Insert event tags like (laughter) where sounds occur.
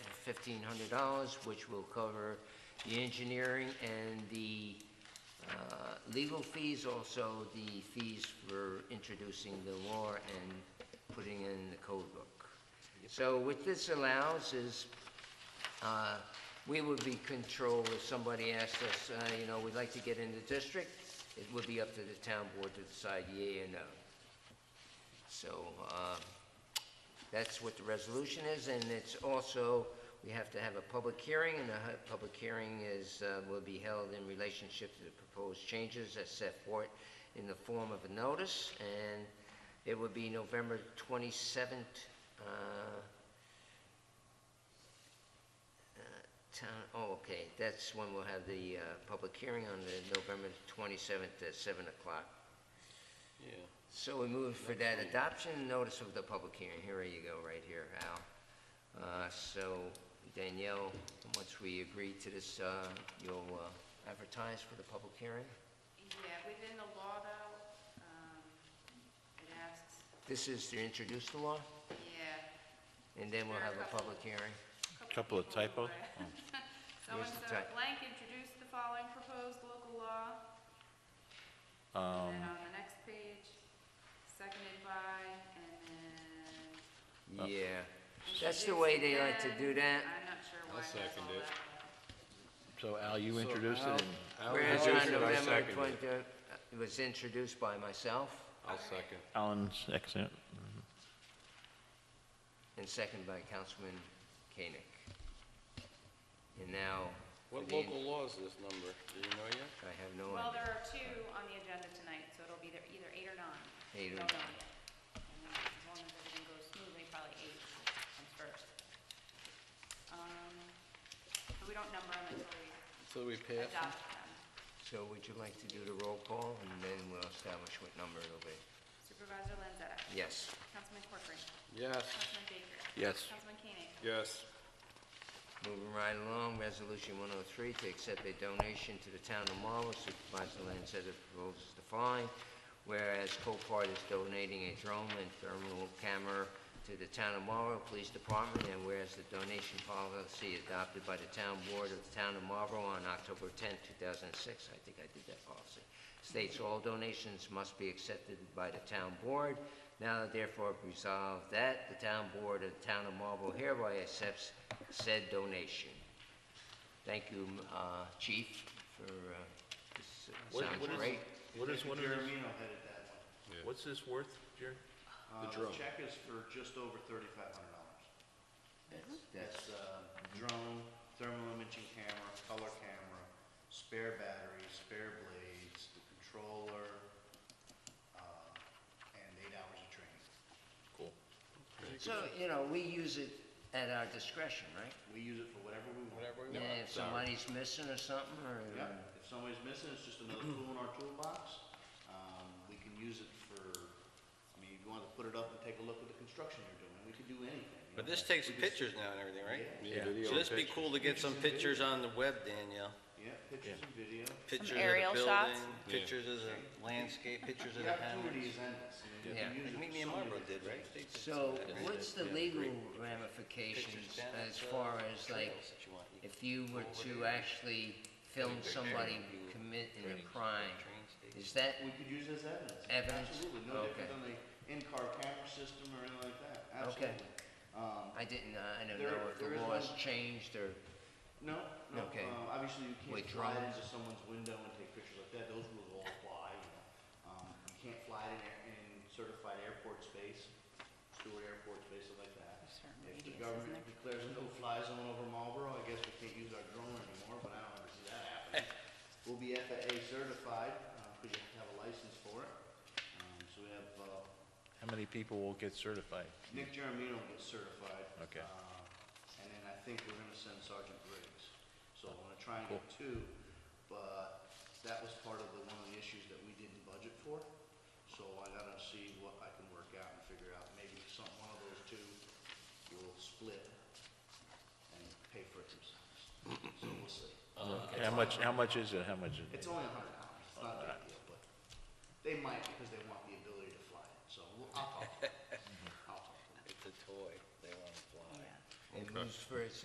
$1,500, which will cover the engineering and the uh, legal fees, also the fees for introducing the law and putting in the code book. So what this allows is uh, we would be controlled if somebody asked us, uh, you know, we'd like to get in the district, it would be up to the town board to decide yea or no. So uh, that's what the resolution is, and it's also, we have to have a public hearing, and the hu- public hearing is, uh, will be held in relationship to the proposed changes as set forth in the form of a notice, and it would be November 27th, uh, Town, oh, okay, that's when we'll have the uh, public hearing on the November 27th at 7 o'clock. Yeah. So we move for that adoption notice of the public hearing. Here you go, right here, Al. Uh, So Danielle, once we agree to this, uh, you'll uh, advertise for the public hearing? Yeah, within the law though, um, it asks, This is to introduce the law, yeah. and then we'll have a public hearing. Couple of people (laughs) typos? were- Oh. Here's the So-and-so type. blank introduced the following proposed local law. And Um, then on the next page, seconded by, and then. Oh. Yeah, that's the way they like to do introduced that. again. I'm not sure why it has all second it. that. So Al, you introduced it, and Whereas introduce on it, I November second 20, uh, it was introduced by myself I'll second. Alan's excellent. and seconded by Councilman Koenig. And now, for What the- local law is this number? Do you know yet? I have no Well, idea. there are two on the agenda tonight, so it'll be either- either eight or nine. Eight or Don't know nine. yet. And then As long as everything goes smoothly, probably eight comes first. Um, But we don't number them until we So we pass? adopt them. So would you like to do the roll call, and then we'll establish what number it'll be? Supervisor Lanzetta. Yes. Councilman Corcoran. Yes. Councilman Baker. Yes. Councilman Koenig. Yes. Moving right along, Resolution 103, to accept a donation to the town of Marlborough, Supervisor Lanzetta proposes the following. Whereas Copart is donating a drone and thermal camera to the town of Marlborough Police Department, and whereas the donation policy adopted by the town board of the town of Marlborough on October 10, 2006, I think I did that policy, states all donations must be accepted by the town board. Now therefore resolved that the town board of the town of Marlborough hereby accepts said donation. Thank you, uh, Chief, for, uh, this sounds great. What is one of Jeremy, those, I'll head it that way. what's this worth, Jerry? Uh, The check is for just over thirty-five hundred dollars. That's uh, drone, thermal imaging camera, color camera, spare batteries, spare blades, the controller, uh, and eight hours of training. Cool. So, you know, we use it at our discretion, right? We use it for whatever we want. Whatever we Yeah, want. if somebody's missing or something, or, Yep, if somebody's missing, it's just another tool in our toolbox. Um, We can use it for, I mean, if you want to put it up and take a look at the construction you're doing, we could do anything. you But know. this takes We just- pictures now and everything, right? Yeah. So this'd be cool to get some pictures on the web, Danielle. Yeah, pictures and video. Pictures of aerial the shots? building, pictures of the landscape, pictures of The the house. opportunity is endless. I mean, you can Yeah. use Like it Mimi for and so many Marlboro different did, right? They did some so of that. what's the legal ramifications Pictures down as at, uh, far as like, trails that you want. You if you were to actually film somebody committing a crime, train station. is that, We could use as evidence. Evidence? Absolutely, no different Okay. than the in-car camera system or anything like that, Okay. absolutely. Um, I didn't, uh, I don't There- know if there the is law has one- changed or, No, no, Okay. um, obviously you can't With fly drones? into someone's window and take pictures like that, those rules all apply, you know. Um, you can't fly in, air- in certified airport space, Stewart Airport space, stuff like that. Certain If the radius, isn't government declares a no-fly zone over Marlboro, I guess we can't use our drone anymore, but I don't ever see that happening. We'll be FAA certified, uh, because you have to have a license for it. Um, so we have, uh, How many people will get certified? Nick Jeremino will get certified. Okay. uh, And then I think we're gonna send Sergeant Briggs. So I'm gonna try and get two, but that was part of the, one of the issues that we didn't budget for. So I gotta see what I can work out and figure out. Maybe some, one of those two will split and pay for it themselves. So we'll see. How much, how much is it, how much is it? It's only a hundred dollars. It's not a big deal, but they might because they want the ability to fly it. So we'll- I'll talk to them. I'll talk to them. It's a toy, they wanna fly. it moves for its